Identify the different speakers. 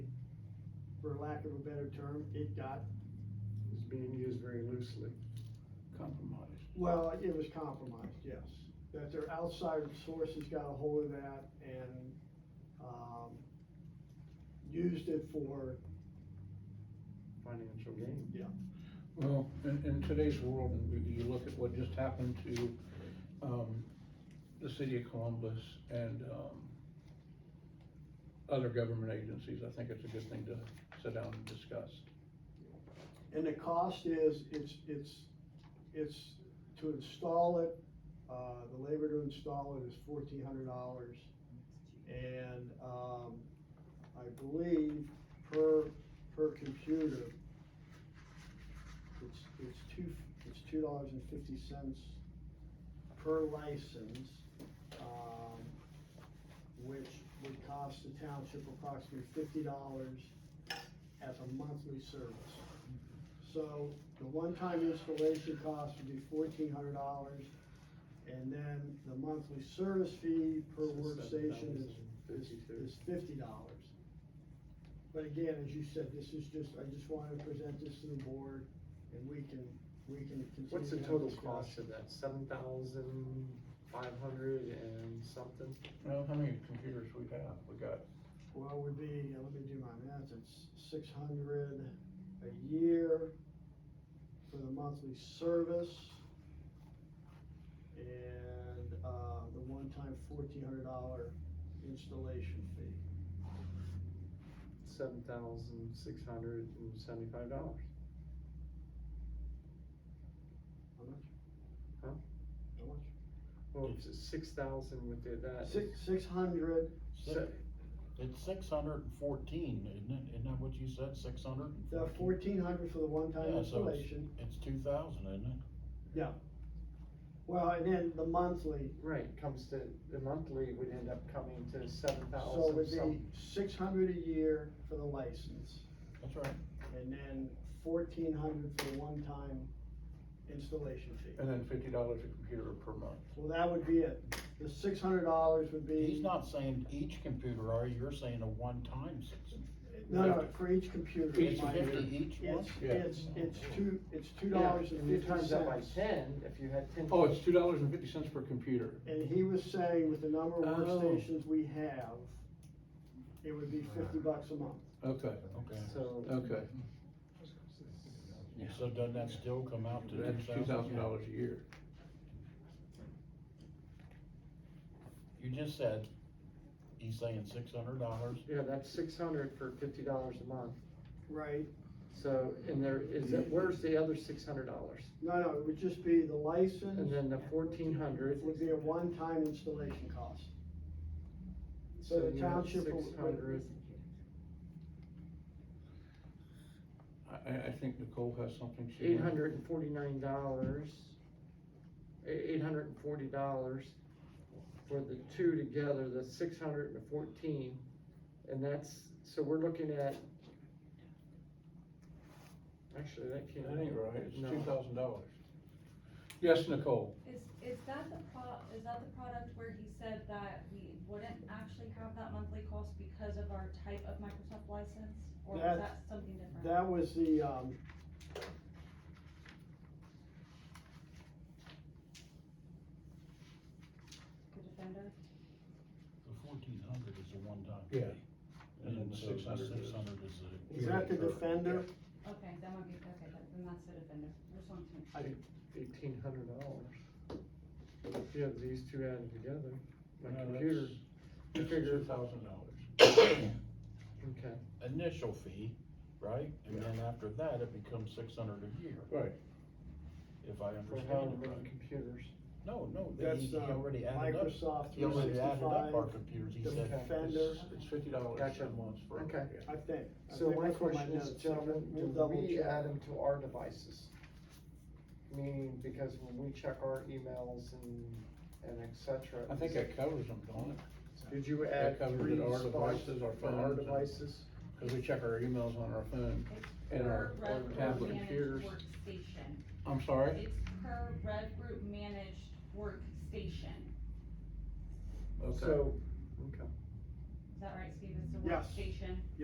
Speaker 1: for lack of a better term, it got,
Speaker 2: It's being used very loosely.
Speaker 3: compromised.
Speaker 1: well, it was compromised, yes. That their outside sources got a hold of that and, um, used it for,
Speaker 2: Financial gain.
Speaker 3: Well, in, in today's world, and we- you look at what just happened to, um, the city of Columbus and, um, other government agencies, I think it's a good thing to sit down and discuss.
Speaker 1: and the cost is, it's, it's, it's to install it, uh, the labor to install it is fourteen hundred dollars. And, um, I believe per, per computer, it's, it's two, it's two dollars and fifty cents per license, um, which would cost the township approximately fifty dollars as a monthly service. So the one-time installation cost would be fourteen hundred dollars, and then the monthly service fee per workstation is is,
Speaker 2: Fifty-two.
Speaker 1: is fifty dollars. But again, as you said, this is just, I just wanted to present this to the board, and we can, we can continue.
Speaker 2: What's the
Speaker 1: to have
Speaker 2: total
Speaker 1: discussion.
Speaker 2: cost of that? Seven thousand five hundred and something?
Speaker 3: Well, how many computers we have? We got
Speaker 1: Well, would be, uh, let me do my math, it's six hundred a year for the monthly service. And, uh, the one-time fourteen hundred dollar installation fee.
Speaker 2: Seven thousand six hundred and seventy-five dollars.
Speaker 1: How much?
Speaker 2: Huh?
Speaker 1: How much?
Speaker 2: Well, if it's six thousand with the- that.
Speaker 1: Six, six hundred
Speaker 2: se-
Speaker 4: It's six hundred and fourteen, isn't it? Isn't that what you said, six hundred?
Speaker 1: The fourteen hundred for the one-time
Speaker 4: Yeah, so it's,
Speaker 1: installation,
Speaker 4: it's two thousand, isn't it?
Speaker 1: well, and then the monthly,
Speaker 2: Right, comes to, the monthly would end up coming to seven
Speaker 1: so it
Speaker 2: thousand
Speaker 1: would be
Speaker 2: something.
Speaker 1: six hundred a year for the license,
Speaker 4: That's right.
Speaker 1: and then fourteen hundred for the one-time installation fee.
Speaker 3: And then fifty dollars a computer per month.
Speaker 1: Well, that would be it, the six hundred dollars would
Speaker 4: He's
Speaker 1: be,
Speaker 4: not saying each computer, are you? You're saying a one-time six.
Speaker 1: no, no, for each computer.
Speaker 4: Each
Speaker 1: my-
Speaker 4: fifty, each one?
Speaker 1: It's,
Speaker 3: Yeah.
Speaker 1: it's, it's two, it's two
Speaker 2: Yeah,
Speaker 1: dollars
Speaker 2: and
Speaker 1: and
Speaker 2: you
Speaker 1: fifty
Speaker 2: times that by
Speaker 1: cents.
Speaker 2: ten, if you had ten.
Speaker 3: Oh, it's two dollars and fifty cents per computer.
Speaker 1: And he was saying with the number of
Speaker 3: Oh.
Speaker 1: workstations we have, it would be fifty bucks a month.
Speaker 3: Okay,
Speaker 4: Okay.
Speaker 2: So.
Speaker 3: okay.
Speaker 4: So doesn't that still come out to
Speaker 3: That's two
Speaker 4: two
Speaker 3: thousand dollars a year.
Speaker 4: You just said, he's saying six hundred dollars.
Speaker 2: Yeah, that's six hundred for fifty dollars a month.
Speaker 1: Right.
Speaker 2: So, and there is, it- where's the other six hundred dollars?
Speaker 1: No, no, it would just be the license.
Speaker 2: And then the fourteen hundred.
Speaker 1: It would be a one-time installation cost. So the township will-
Speaker 2: Six hundred,
Speaker 3: I, I, I think Nicole has something she.
Speaker 2: eight hundred and forty-nine dollars. Eight hundred and forty dollars for the two together, the six hundred and fourteen. And that's, so we're looking at. Actually, that can't.
Speaker 3: That ain't right, it's
Speaker 2: No.
Speaker 3: two thousand dollars. Yes, Nicole,
Speaker 5: Is, is that the pro, is that the product where he said that we wouldn't actually have that monthly cost because of our type of Microsoft license? Or was
Speaker 1: That's-
Speaker 5: that something different?
Speaker 1: That was the, um,
Speaker 5: The Defender?
Speaker 4: The fourteen hundred is a one-time.
Speaker 3: Yeah.
Speaker 4: fee.
Speaker 3: And then the
Speaker 4: so the
Speaker 3: 600 is-
Speaker 4: 600 is a.
Speaker 1: is that the Defender?
Speaker 5: Okay, that might be, okay, that- then that's the Defender. Just wanted to make sure.
Speaker 2: Eighteen hundred dollars. If you have these two added together, my
Speaker 3: No,
Speaker 2: computer,
Speaker 3: that's-
Speaker 2: I figured,
Speaker 3: two thousand dollars.
Speaker 2: okay.
Speaker 4: Initial fee, right? And then after that, it becomes six hundred a year,
Speaker 3: Right,
Speaker 4: if I
Speaker 2: For
Speaker 4: understand
Speaker 2: how
Speaker 4: it right.
Speaker 2: many computers?
Speaker 4: No, no, that
Speaker 1: That's,
Speaker 4: he, he
Speaker 1: uh,
Speaker 4: already added up,
Speaker 1: Microsoft
Speaker 4: he already added up our
Speaker 1: 365,
Speaker 4: computers, he said.
Speaker 1: Defender,
Speaker 3: it's, it's fifty dollars
Speaker 2: Gotcha.
Speaker 3: a month for.
Speaker 2: Okay.
Speaker 3: yeah.
Speaker 1: I think. I
Speaker 2: So
Speaker 1: think
Speaker 2: my
Speaker 1: that's what
Speaker 2: question is,
Speaker 1: notes-
Speaker 2: gentlemen,
Speaker 1: we'll
Speaker 2: do
Speaker 1: double
Speaker 2: we
Speaker 1: check.
Speaker 2: add them to our devices? Meaning, because when we check our emails and, and et cetera.
Speaker 3: I think
Speaker 2: is-
Speaker 3: that covers them, don't it?
Speaker 2: Did you
Speaker 3: that
Speaker 2: add
Speaker 3: covers it,
Speaker 2: three
Speaker 3: our
Speaker 2: spots
Speaker 3: devices, our
Speaker 2: for our
Speaker 3: phones and-
Speaker 2: devices?
Speaker 3: Cause we check our emails on our phone and our
Speaker 5: Per Red Group
Speaker 3: tablet
Speaker 5: managed
Speaker 3: computers.
Speaker 5: Workstation.
Speaker 3: I'm sorry?
Speaker 5: It's per Red Group managed workstation.
Speaker 3: Okay.
Speaker 2: So, okay.
Speaker 5: Is that right, Steve? It's a
Speaker 1: Yes.
Speaker 5: workstation?